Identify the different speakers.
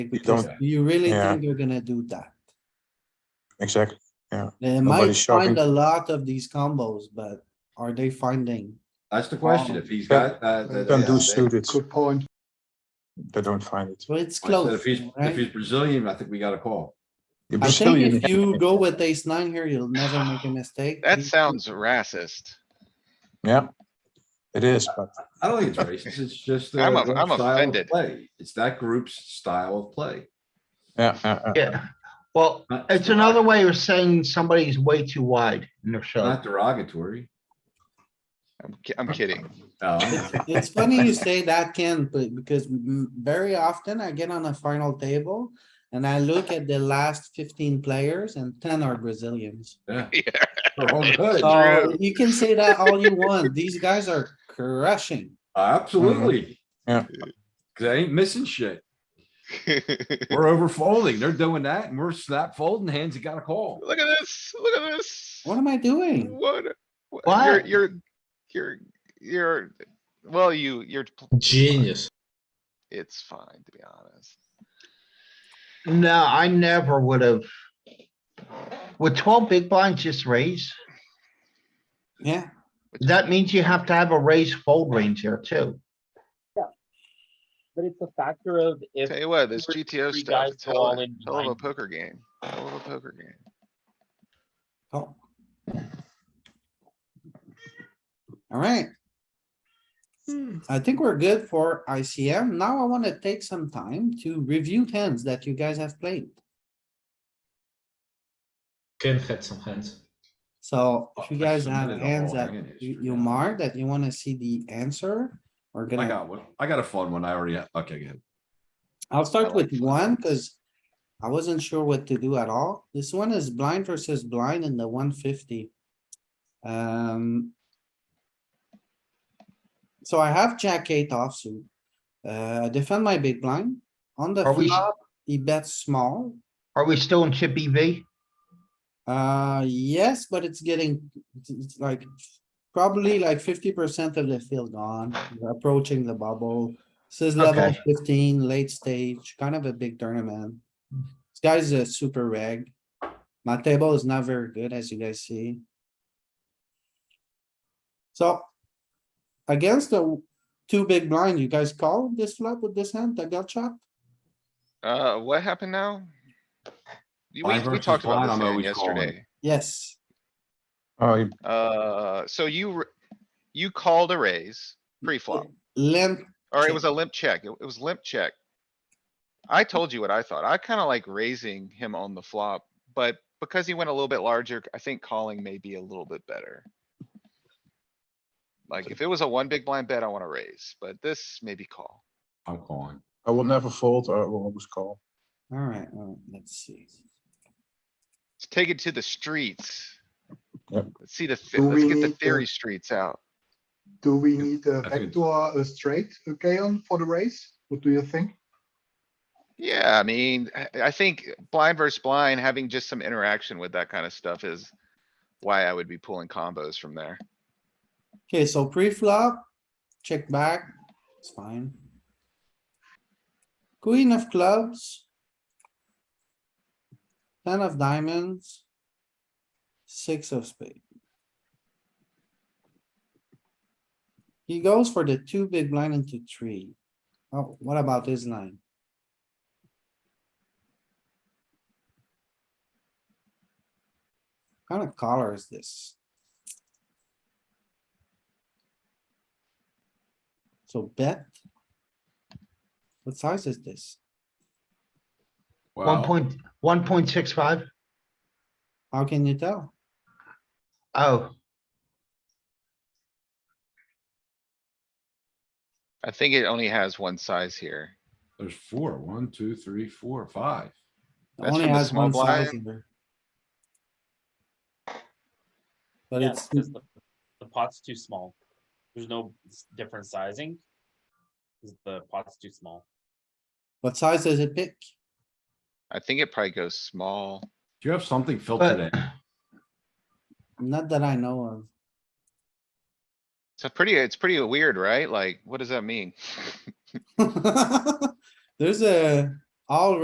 Speaker 1: Because
Speaker 2: don't-
Speaker 1: you really
Speaker 2: yeah.
Speaker 1: think you're gonna do that?
Speaker 2: exactly.
Speaker 1: They might
Speaker 2: Nobody's
Speaker 1: find
Speaker 2: shopping.
Speaker 1: a lot of these combos, but are they finding?
Speaker 3: That's the question, if he's got, uh. the-
Speaker 2: Don't
Speaker 3: yeah,
Speaker 2: do
Speaker 3: they-
Speaker 2: suited,
Speaker 4: Good point.
Speaker 2: they don't find it.
Speaker 1: So it's
Speaker 3: I said
Speaker 1: close,
Speaker 3: If he's, if
Speaker 1: right?
Speaker 3: he's Brazilian, I think we got a call.
Speaker 2: The
Speaker 1: I think
Speaker 2: Brazilian
Speaker 1: if you go with ace nine here, you'll never make a mistake.
Speaker 5: That
Speaker 1: Ace-
Speaker 5: sounds racist.
Speaker 2: Yeah, it is, but
Speaker 3: I don't think it's racist, it's just.
Speaker 5: I'm
Speaker 3: uh,
Speaker 5: of-
Speaker 3: their
Speaker 5: I'm
Speaker 3: style of
Speaker 5: offended.
Speaker 3: Play, it's that group's style of play.
Speaker 2: yeah, uh, uh,
Speaker 4: Yeah, well,
Speaker 3: Not-
Speaker 4: it's another way of saying somebody's way too wide in the show.
Speaker 3: Not derogatory.
Speaker 5: I'm, ki- I'm kidding.
Speaker 3: Um,
Speaker 1: It's- It's funny you say that, Ken, but because m- very often I get on a final table and I look at the last fifteen players and ten are Brazilians.
Speaker 3: yeah,
Speaker 5: Yeah,
Speaker 3: they're all good.
Speaker 5: Uh,
Speaker 1: So
Speaker 5: True.
Speaker 1: you can say that all you want. These guys are crushing.
Speaker 3: Absolutely.
Speaker 2: Yeah.
Speaker 3: 'Cause they ain't missing shit. We're over folding, they're doing that, and we're snap folding hands, you got a call.
Speaker 5: Look at this, look at this.
Speaker 1: What am I doing?
Speaker 5: What? what- You're,
Speaker 4: What?
Speaker 5: you're, you're, you're, well, you, you're, pl-
Speaker 6: Genius.
Speaker 5: it's fine, to be honest.
Speaker 4: No, I never would have. With twelve big blinds, just raise.
Speaker 1: Yeah,
Speaker 4: That means you have to have a raise fold range here too.
Speaker 7: But it's a factor of if
Speaker 5: Tell you what, this
Speaker 7: were
Speaker 5: GTO
Speaker 7: three
Speaker 5: stuff,
Speaker 7: guys
Speaker 5: it's
Speaker 7: go
Speaker 5: hell,
Speaker 7: all
Speaker 5: of a-
Speaker 7: in
Speaker 5: hell of a
Speaker 7: blind.
Speaker 5: poker game, hell of a poker game.
Speaker 1: oh. Alright, I think we're good for ICM. Now I wanna take some time to review hands that you guys have played.
Speaker 6: Ken had some hands.
Speaker 1: So if you
Speaker 3: Oh, I
Speaker 1: guys have
Speaker 3: submitted a
Speaker 1: hands
Speaker 3: whole
Speaker 1: that
Speaker 3: hand
Speaker 1: you,
Speaker 3: history
Speaker 1: you
Speaker 3: now.
Speaker 1: mark that you wanna see the answer, we're
Speaker 3: I
Speaker 1: gonna,
Speaker 3: got one, I got a fun one, I already, have- okay, go ahead.
Speaker 1: I'll start
Speaker 5: like
Speaker 1: with
Speaker 5: that.
Speaker 1: one, cause I wasn't sure what to do at all. This one is blind versus blind in the one fifty. Um. So I have jack eight offsuit. Uh, defend my big blind. On the
Speaker 4: Are we-
Speaker 1: flop, he bets small.
Speaker 4: Are we still in chip E EV?
Speaker 1: Uh, yes, but it's getting, it's- it's like, probably like fifty percent of the field gone, We're approaching the bubble. This is level
Speaker 4: Okay.
Speaker 1: fifteen, late stage, kind of a big tournament. This guy's a super reg. My table is not very good, as you guys see. So. Against the two big blind, you guys call this flop with this hand that got chopped?
Speaker 5: Uh, what happened now? You- We,
Speaker 3: Blind
Speaker 5: we
Speaker 3: versus
Speaker 5: talked about
Speaker 3: blind,
Speaker 5: this
Speaker 3: I'm
Speaker 5: thing
Speaker 3: always calling.
Speaker 5: yesterday.
Speaker 1: Yes,
Speaker 2: oh, you-
Speaker 5: Uh, so you, r- you called a raise pre-flop.
Speaker 1: limp,
Speaker 5: Or it
Speaker 1: Check.
Speaker 5: was a limp check. It it was limp check. I told you what I thought. I kinda like raising him on the flop, but because he went a little bit larger, I think calling may be a little bit better. Like if it was a one big blind bet, I wanna raise, but this maybe call.
Speaker 3: I'm calling.
Speaker 2: I will never uh, fold, I will always call.
Speaker 1: alright, alright, let's see.
Speaker 5: Let's take it to the streets.
Speaker 2: Yep.
Speaker 5: Let's see the, thi-
Speaker 8: Do
Speaker 5: let's
Speaker 8: we
Speaker 5: get the
Speaker 8: need to-
Speaker 5: theory streets out.
Speaker 8: Do we need a
Speaker 3: I think it's-
Speaker 8: backdoor uh, straight, okay, on for the race? What do you think?
Speaker 5: Yeah, I mean, I, I think blind versus blind, having just some interaction with that kinda stuff is why I would be pulling combos from there.
Speaker 1: Okay, so pre-flop, check back, it's fine. Queen of clubs. Ten of diamonds. Six of spade. He goes for the two big blind into three. Oh, what about this line? Kind of color is this? So bet. What size is this?
Speaker 4: One
Speaker 3: Wow,
Speaker 4: point, one point six five?
Speaker 1: How can you tell?
Speaker 4: Oh,
Speaker 5: I think it only has one size here.
Speaker 3: there's four. One, two, three, four, five.
Speaker 1: It
Speaker 5: That's
Speaker 1: only
Speaker 5: from the
Speaker 1: has
Speaker 5: small
Speaker 1: one size
Speaker 5: blind.
Speaker 1: here. But
Speaker 7: yeah,
Speaker 1: it's,
Speaker 7: because the, the pot's too small. There's no s- different sizing. 'cause The pot's too small.
Speaker 1: what size does it pick?
Speaker 5: I think it probably goes small.
Speaker 3: Do you have something filtered in?
Speaker 4: but
Speaker 1: Not that I know of.
Speaker 5: It's a pretty, it's pretty weird, right? Like, what does that mean?
Speaker 1: There's a all